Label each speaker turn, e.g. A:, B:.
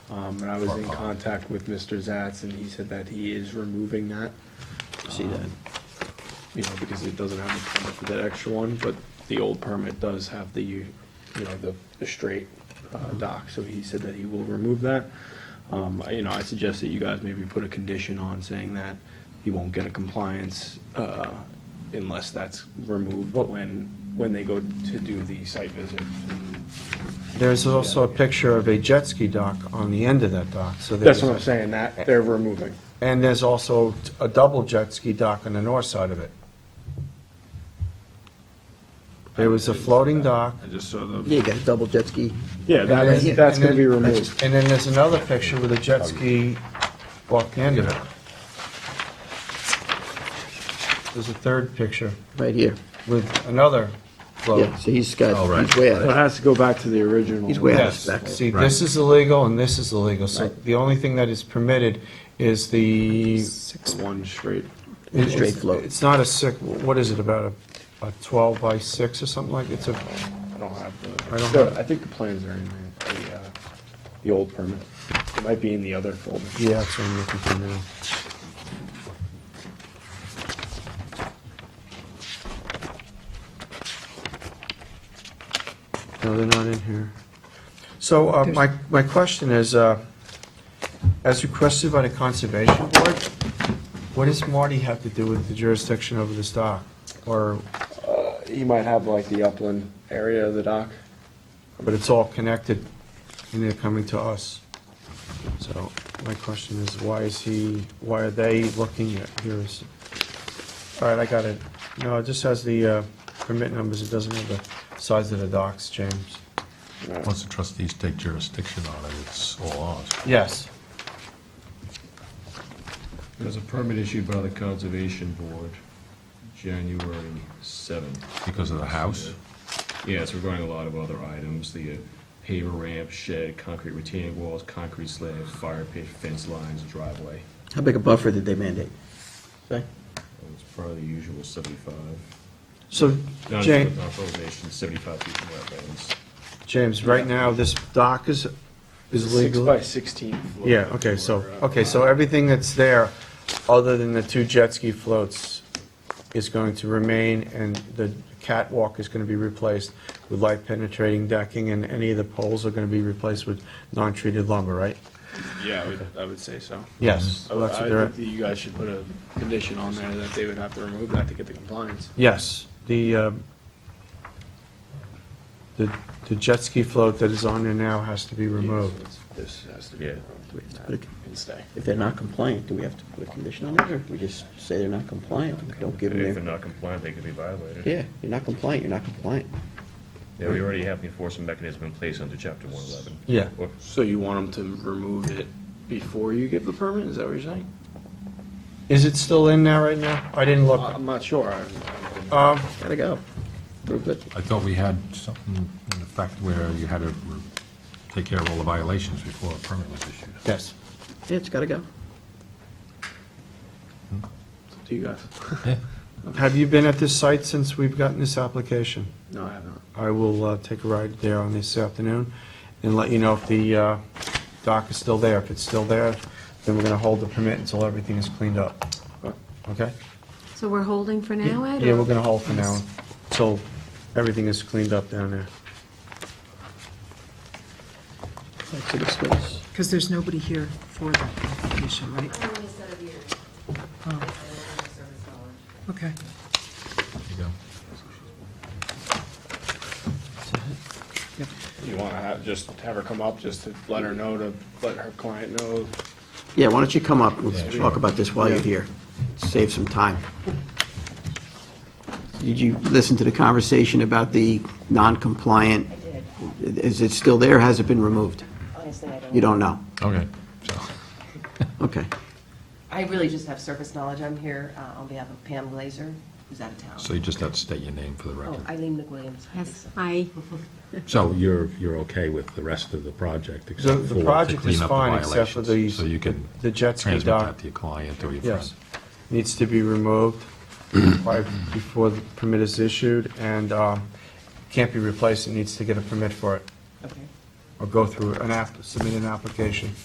A: Um, and I was in contact with Mr. Zatz and he said that he is removing that. Um,
B: See that?
A: You know, because it doesn't have a permit for that extra one, but the old permit does have the, you know, the, the straight uh, dock, so he said that he will remove that. Um, I- you know, I suggest that you guys maybe put a condition on saying that he won't get a compliance, uh, unless that's removed when, when they go to do the site visit.
C: There's also a picture of a jet ski dock on the end of that dock, so there's...
A: That's what I'm saying, that they're removing.
C: And there's also t- a double jet ski dock on the north side of it. There was a floating dock.
D: I just saw
B: Yeah,
D: the,
B: you got a double jet ski.
A: Yeah,
C: and
A: that,
C: then-
A: that's
C: and
A: gonna be
C: then-
A: removed.
C: And then there's another picture with a jet ski walk the end of it. There's a third picture
B: Right here.
C: with another float.
B: Yeah, so he's
D: Oh,
B: got,
D: right.
B: he's way
A: So it
B: out.
A: has to go back to the original.
B: He's way out of
C: Yes,
B: spec.
C: see, this is illegal and this is illegal, so
B: Right.
C: the only thing that is permitted is the
A: Six one straight.
C: It-
B: Straight
C: it's-
B: float.
C: It's not a six, what is it, about a, a 12 by 6 or something like, it's a,
A: I don't have the,
C: I don't
A: so
C: have-
A: I think the plans are in the, the, uh, the old permit. It might be in the other folder.
C: yeah, that's what I'm looking for now. No, they're not in here. So uh, my, my question is, uh, as requested by the Conservation Board, what does Marty have to do with the jurisdiction over this dock? Or,
A: Uh, He might have like the upland area of the dock.
C: but it's all connected, and they're coming to us. So my question is, why is he, why are they looking at yours? All right, I got it. No, it just has the uh, permit numbers, it doesn't have the size of the docks, James.
E: Once the trustees take jurisdiction on it, it's all ours.
C: Yes.
D: there's a permit issued by the Conservation Board, January 7th.
E: Because of the house?
D: Yes, regarding a lot of other items, the uh, paver ramp, shed, concrete retaining walls, concrete slab, fire pit, fence lines, driveway.
B: How big a buffer did they mandate? Okay.
D: It's part of the usual 75.
C: So,
D: Not
C: James,
D: authorization, 75 feet from wetlands.
C: James, right now, this dock is, is
A: Six
C: legal?
A: by sixteen. floor.
C: Yeah, okay, so,
A: Or, uh,
C: okay, so everything that's there, other than the two jet ski floats, is going to remain, and the catwalk is gonna be replaced with light penetrating decking, and any of the poles are gonna be replaced with non-treated lumber, right?
A: Yeah, I would, I would say so.
C: Yes.
A: I
C: So
A: would-
C: that's
A: I
C: what
A: think
C: they're-
A: that you guys should put a condition on there that they would have to remove that to get the compliance.
C: Yes, the, uh, the the jet ski float that is on there now has to be removed.
A: This has to be.
D: Yeah.
A: removed
B: Good.
A: And stay.
B: If they're not compliant, do we have to put a condition on it, or we just say they're not compliant? and Don't give
D: If they're
B: them
D: not compliant, they could be violated.
B: their, yeah, you're not compliant, you're not compliant.
D: Yeah, we already have the enforcement mechanism in place under chapter 111.
C: Yeah.
D: Or-
A: So you want them to remove it before you give the permit? Is that what you're saying?
C: Is it still in there right now? I didn't look.
A: I'm not sure. I-
C: Um,
B: Gotta go. Prove it.
E: I thought we had something in the fact where you had to re- take care of all the violations before a permit was issued.
C: Yes.
B: Yeah, it's gotta go.
A: Do you guys?
C: Have you been at this site since we've gotten this application?
A: No, I haven't.
C: I will uh, take a ride there on this afternoon and let you know if the uh, dock is still there. If it's still there, then we're going to hold the permit until everything is cleaned up. Okay?
F: So we're holding for now, Ed?
C: Yeah,
F: or-
C: we're going to hold for now until everything is cleaned up down there.
B: That's it, it's good.
G: Because there's nobody here for that application, right? Oh. Okay.
E: There you go.
A: You want to have, just have her come up, just to let her know, to let her client know?
B: Yeah, why don't you come up, we'll talk about this while you're here, save some time. Did you listen to the conversation about the non-compliant? Is it still there, has it been removed?
H: Honestly, I don't.
B: You don't know?
E: Okay.
B: Okay.
H: I really just have surface knowledge. I'm here uh, on behalf of Pam Glazer, who's out of town.
E: So you just have to state your name for the
H: Oh,
E: record.
H: Eileen McWilliams. I
F: Yes,
H: think so.
F: I,
E: So you're, you're okay with the rest of the project
C: The
E: except for
C: the
E: to
C: project is
E: clean up the
C: fine, except for the,
E: violations? So you can
C: the jet ski
E: transmit that
C: dock.
E: to your client or your friend?
C: Yes, needs to be removed by- before the permit is issued and um, can't be replaced. It needs to get a permit for it
H: Okay.
C: or go through an app, submit an application.